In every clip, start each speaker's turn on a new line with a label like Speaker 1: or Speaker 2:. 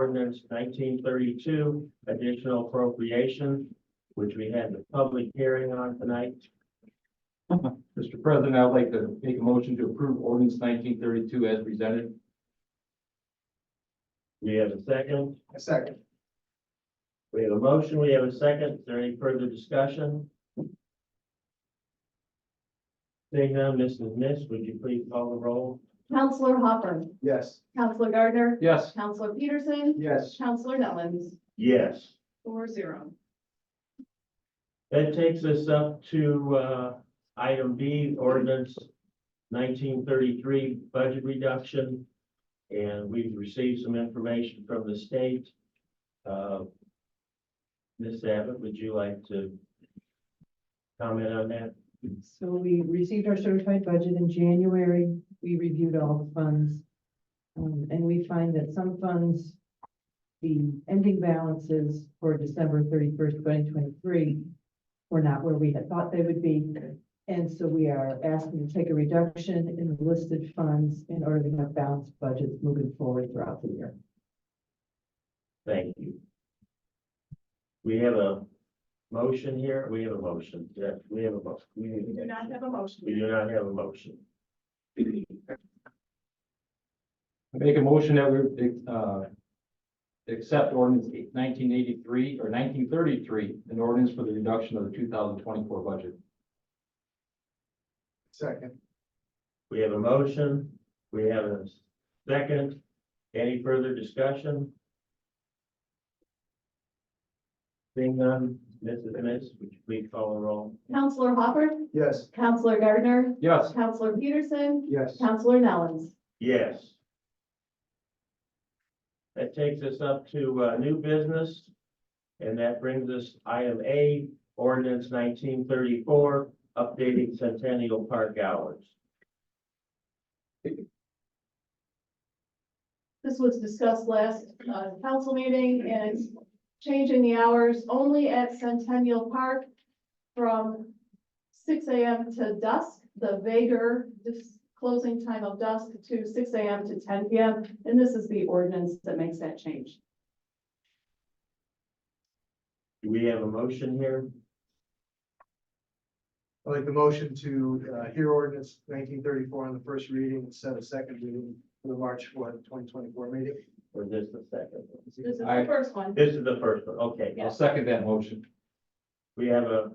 Speaker 1: ordinance nineteen thirty-two, additional appropriation, which we had the public hearing on tonight.
Speaker 2: Mr. President, I'd like to make a motion to approve ordinance nineteen thirty-two as presented.
Speaker 1: We have a second.
Speaker 2: A second.
Speaker 1: We have a motion. We have a second. Is there any further discussion? Seeing none, Mrs. Miss, would you please call the roll?
Speaker 3: Counselor Hopper,
Speaker 2: Yes.
Speaker 3: Counselor Gardner,
Speaker 2: Yes.
Speaker 3: Counselor Peterson,
Speaker 2: Yes.
Speaker 3: Counselor Nellens,
Speaker 1: Yes.
Speaker 3: four zero.
Speaker 1: That takes us up to, uh, item B, ordinance nineteen thirty-three, budget reduction. And we've received some information from the state. Uh, Ms. Abbott, would you like to comment on that?
Speaker 4: So we received our certified budget in January. We reviewed all the funds. Um, and we find that some funds, the ending balances for December thirty-first, twenty twenty-three were not where we had thought they would be. And so we are asking to take a reduction in the listed funds in order to have balanced budgets moving forward throughout the year.
Speaker 1: Thank you. We have a motion here. We have a motion. Yeah, we have a motion.
Speaker 3: We do not have a
Speaker 1: We
Speaker 3: motion.
Speaker 1: do not have a motion.
Speaker 2: I Make a motion that we, uh, accept ordinance nineteen eighty-three or nineteen thirty-three, an ordinance for the reduction of the two thousand twenty-four budget. Second.
Speaker 1: We have a motion. We have a second. Any further discussion? Seeing none, Mrs. Ennis, would you please call the roll?
Speaker 3: Counselor Hopper,
Speaker 2: Yes.
Speaker 3: Counselor Gardner,
Speaker 2: Yes.
Speaker 3: Counselor Peterson,
Speaker 2: Yes.
Speaker 3: Counselor Nellens,
Speaker 1: Yes. That takes us up to uh, new business. And that brings us item A, ordinance nineteen thirty-four, updating Centennial Park hours.
Speaker 3: This was discussed last uh, council meeting and it's changing the hours only at Centennial Park from six AM to dusk, the vaguer dis- closing time of dusk to six AM to ten PM. And this is the ordinance that makes that change.
Speaker 1: Do we have a motion here?
Speaker 5: i like the motion to uh, hear ordinance nineteen thirty-four on the first reading and set a second reading for the March fourth, twenty twenty-four meeting.
Speaker 1: Or is this the second?
Speaker 3: This is the
Speaker 2: I-
Speaker 3: first one.
Speaker 1: This is the first one, okay.
Speaker 2: I'll second that motion.
Speaker 1: We have a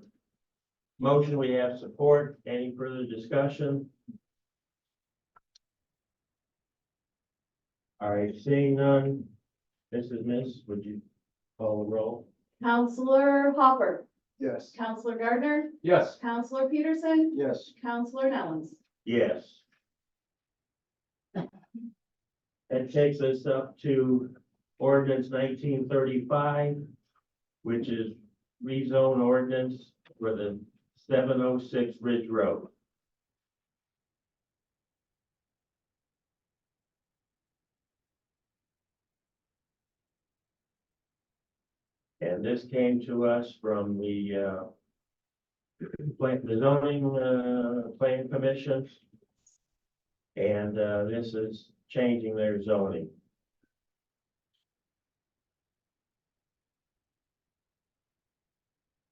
Speaker 1: motion, we have support. Any further discussion? All right, seeing none. Mrs. Miss, would you call the roll?
Speaker 3: Counselor Hopper,
Speaker 5: Yes.
Speaker 3: Counselor Gardner,
Speaker 2: Yes.
Speaker 3: Counselor Peterson,
Speaker 5: Yes.
Speaker 3: Counselor Nellens.
Speaker 1: Yes. That takes us up to ordinance nineteen thirty-five, which is rezone ordinance for the seven oh six Ridge Road. And this came to us from the, uh, plan, the zoning, uh, plan commission. And, uh, this is changing their zoning.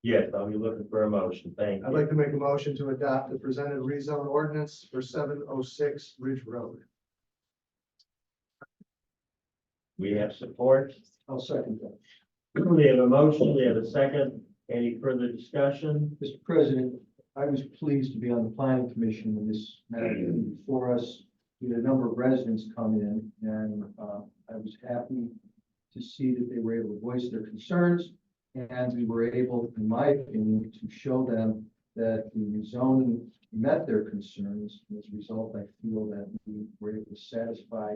Speaker 1: Yes, I'll be looking for a motion, thank
Speaker 5: I'd
Speaker 1: you.
Speaker 5: like to make a motion to adopt the presented rezone ordinance for seven oh six Ridge Road.
Speaker 1: We have support.
Speaker 5: I'll second that.
Speaker 1: We have a motion, we have a second. Any further discussion?
Speaker 6: Mr. President, I was pleased to be on the planning commission when this matter came before us. We had a number of residents come in and uh, I was happy to see that they were able to voice their concerns. And we were able, in my opinion, to show them that the rezoning met their concerns. And As a result, I feel that we were able to satisfy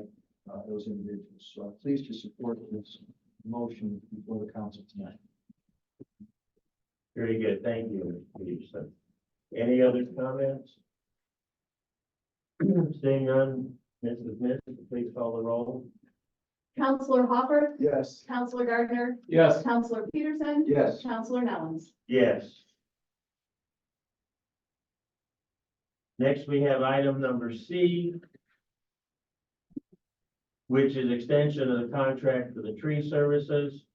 Speaker 6: uh, those individuals. So I'm pleased to support this motion before the council tonight.
Speaker 1: Very good, thank you, Mr. Peterson. Any other comments? Seeing none, Mrs. Miss, please call the roll.
Speaker 3: Counselor Hopper,
Speaker 5: Yes.
Speaker 3: Counselor Gardner,
Speaker 2: Yes.
Speaker 3: Counselor Peterson,
Speaker 6: Yes.
Speaker 3: Counselor Nellens.
Speaker 1: Yes. Next, we have item number C. which is extension of the contract for the tree services.